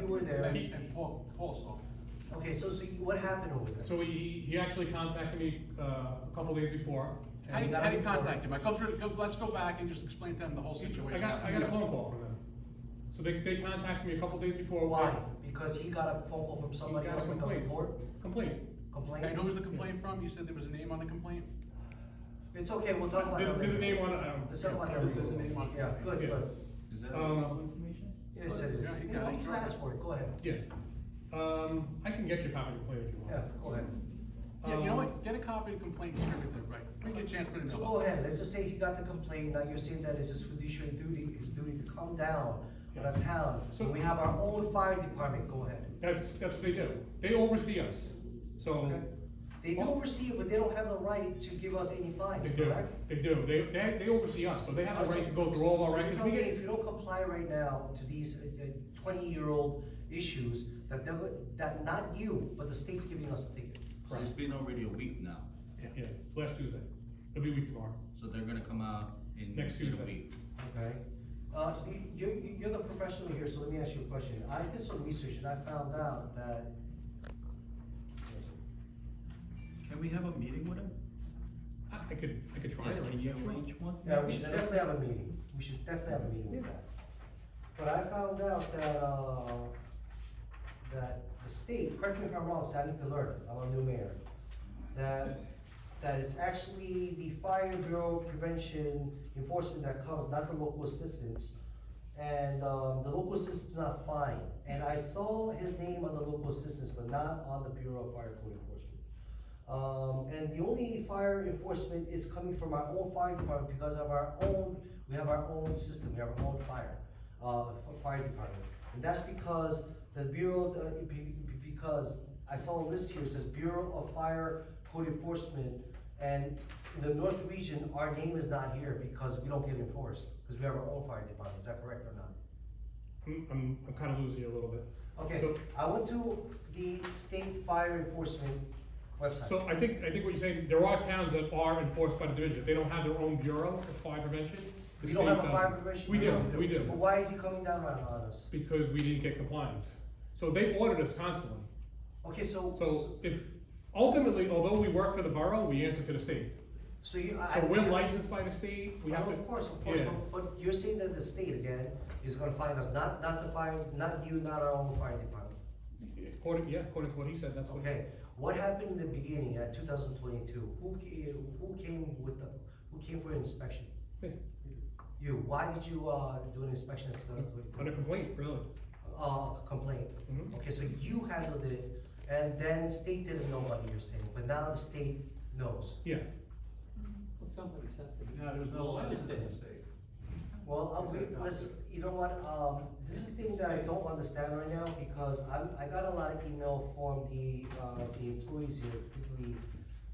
You were there. Pete and Paul, Paul saw. Okay, so, so you- what happened over there? So he, he actually contacted me, uh, a couple days before. So How you do you, got how a do you phone call. contact him? I come through, go, let's go back and just explain to them the whole situation. I got, I got a phone call from them. So they, they contacted me a couple days before. Why? Because he got a phone call from He somebody got else, like a complaint. report, Complaint. complaint? And who was the complaint from? You said there was a name on the complaint? It's okay, we'll talk about that There's, later. there's a name on it, I don't. Let's talk about that There's a name later. on it. Yeah, good, Yeah. good. Is that Um, available information? Yes, it is. Yeah, you Yeah, got it. He's asked for it, go ahead. Yeah. Um, I can get you a copy of the complaint if you want. Yeah, go ahead. Yeah, you know Um, what? Get a copy of the complaint distributed, right? We get a chance, but in the. So go ahead, let's just say he got the complaint, now you're saying that it's his fiduciary duty, his duty to come down on a Yeah. town. So- We have our own fire department, go ahead. That's, that's what they do. They oversee us. So Okay. They do oversee it, but they don't have the right to give us any fines, they do, correct? Oh, they do. They, they, they oversee us, so they have the right to go through all So our you records. tell We me get- if you don't comply right now to these uh, twenty-year-old issues, that they're, go- that not you, but the state's giving us a ticket. So it's been already a week now, Yeah, last Tuesday. It'll be a week tomorrow. so they're gonna come out in, Next in Tuesday. a week. Okay. Uh, you, you, you're the professional here, so let me ask you a question. I did some research and I found out that Can we have a meeting with them? I I could, I could try. Yes, it. can you Sure. arrange one? Yeah, we should definitely have a meeting, we should definitely have a meeting with that. But I found out that, uh, that the state, correct me if I'm wrong, so I need to learn, I'm a new mayor, that, that it's actually the fire bureau prevention enforcement that comes, not the local assistance. And, um, the local assistance is not fine, and I saw his name on the local assistance, but not on the Bureau of Fire Code Enforcement. Um, and the only fire enforcement is coming from our own fire department because of our own, we have our own system, we have our own fire, uh, f- fire department. And that's because the Bureau, uh, be- be- because I saw a list here, it says Bureau of Fire Code Enforcement. And in the North Region, our name is not here because we don't get enforced, because we have our own fire department, is that correct or not? I'm, I'm, I'm kind of losing you a little bit. Okay, So- I went to the state fire enforcement website. So I think, I think what you're saying, there are towns that are enforced by the division, they don't have their own bureau of fire prevention. the We don't state have a does. fire prevention? We do, bureau? we But do, why is he coming down on on us? because we didn't get compliance. So they audit us constantly. Okay, so, So so- if, ultimately, although we work for the borough, we answer to the state. so you, I. So I- we're licensed by the state, we have Oh, to. Of course, of course, Yeah. but, but you're saying that the state again is gonna find us, not, not the fire, not you, not our own fire department. According, yeah, according to what he said, that's what. Okay, what happened in the beginning at two thousand twenty-two? Who ca- who came with the, who came for inspection? Yeah, You, why did you, uh, do an inspection in two thousand On a twenty-two? complaint, really. Uh, complaint? Mhm. Okay, so you handled it, and then state didn't know what you're saying, but now the state knows. Yeah, Somebody sent the. No, there was no letter in the state. Well, uh, we, Exactly. let's, you know what, um, this is the thing that I don't understand right now, because I'm, I got a lot of email from the, uh, the employees here, particularly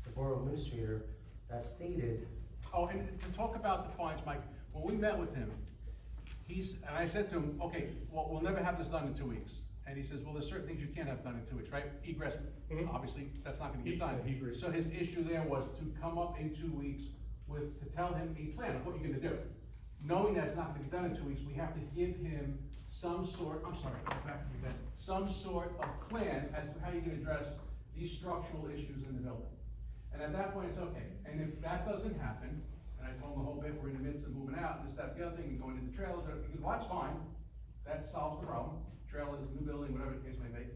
the borough administrator, that stated, Oh, and to talk about the fines, Mike, when we met with him, he's, and I said to him, okay, well, we'll never have this done in two weeks. And he says, well, there's certain things you can't have done in two weeks, right? Egress, Mhm. obviously, that's not gonna He- get done. yeah, he agreed. So his issue there was to come up in two weeks with, to tell him a plan of what you're gonna do. Knowing that's not gonna be done in two weeks, we have to give him some sort, I'm sorry, go back to you guys, some sort of plan as to how you're gonna address these structural issues in the building. And at that point, it's okay, and if that doesn't happen, and I told him the whole bit, we're in the midst of moving out, this, that, the other thing, and going into trailers, and everything, well, that's fine, that solves the problem, trailers, new building, whatever the case may be.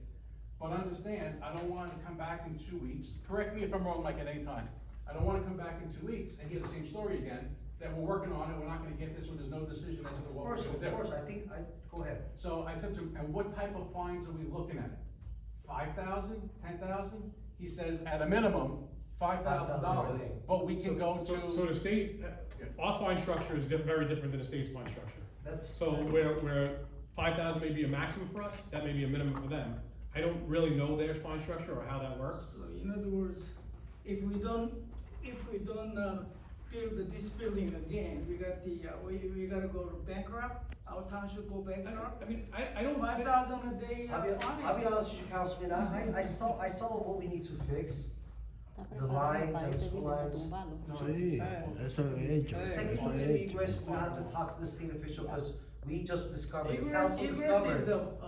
But understand, I don't want to come back in two weeks, correct me if I'm wrong, Mike, at any time, I don't wanna come back in two weeks and hear the same story again, that we're working on it, we're not gonna get this, or there's no decision as to of what we're course, gonna do. of course, I think, I, go ahead. So I said to him, and what type of fines are we looking at? Five thousand, ten thousand? He says, at a minimum, five thousand $5,000 dollars, a day. but we can go So- So the to. state, our fine structure is di- very different than the state's fine structure. That's- So where, where five thousand may be a maximum for us, that may be a minimum for them. I don't really know their fine structure or how that works. So in other words, if we don't, if we don't, uh, build this building again, we got the, uh, we, we gotta go bankrupt, our town should go I bankrupt. mean, I, I don't. Five thousand a day, I'll be, uh, I'll be fine. honest with you, Councilman, I, I, I saw, I saw what we need to fix. The lines and lines. Sí, eso he hecho. The second eso one, he to me, hecho. Grace, we'll have to talk to the state official, because we just discovered, the Egress, council egress discovered. is a, a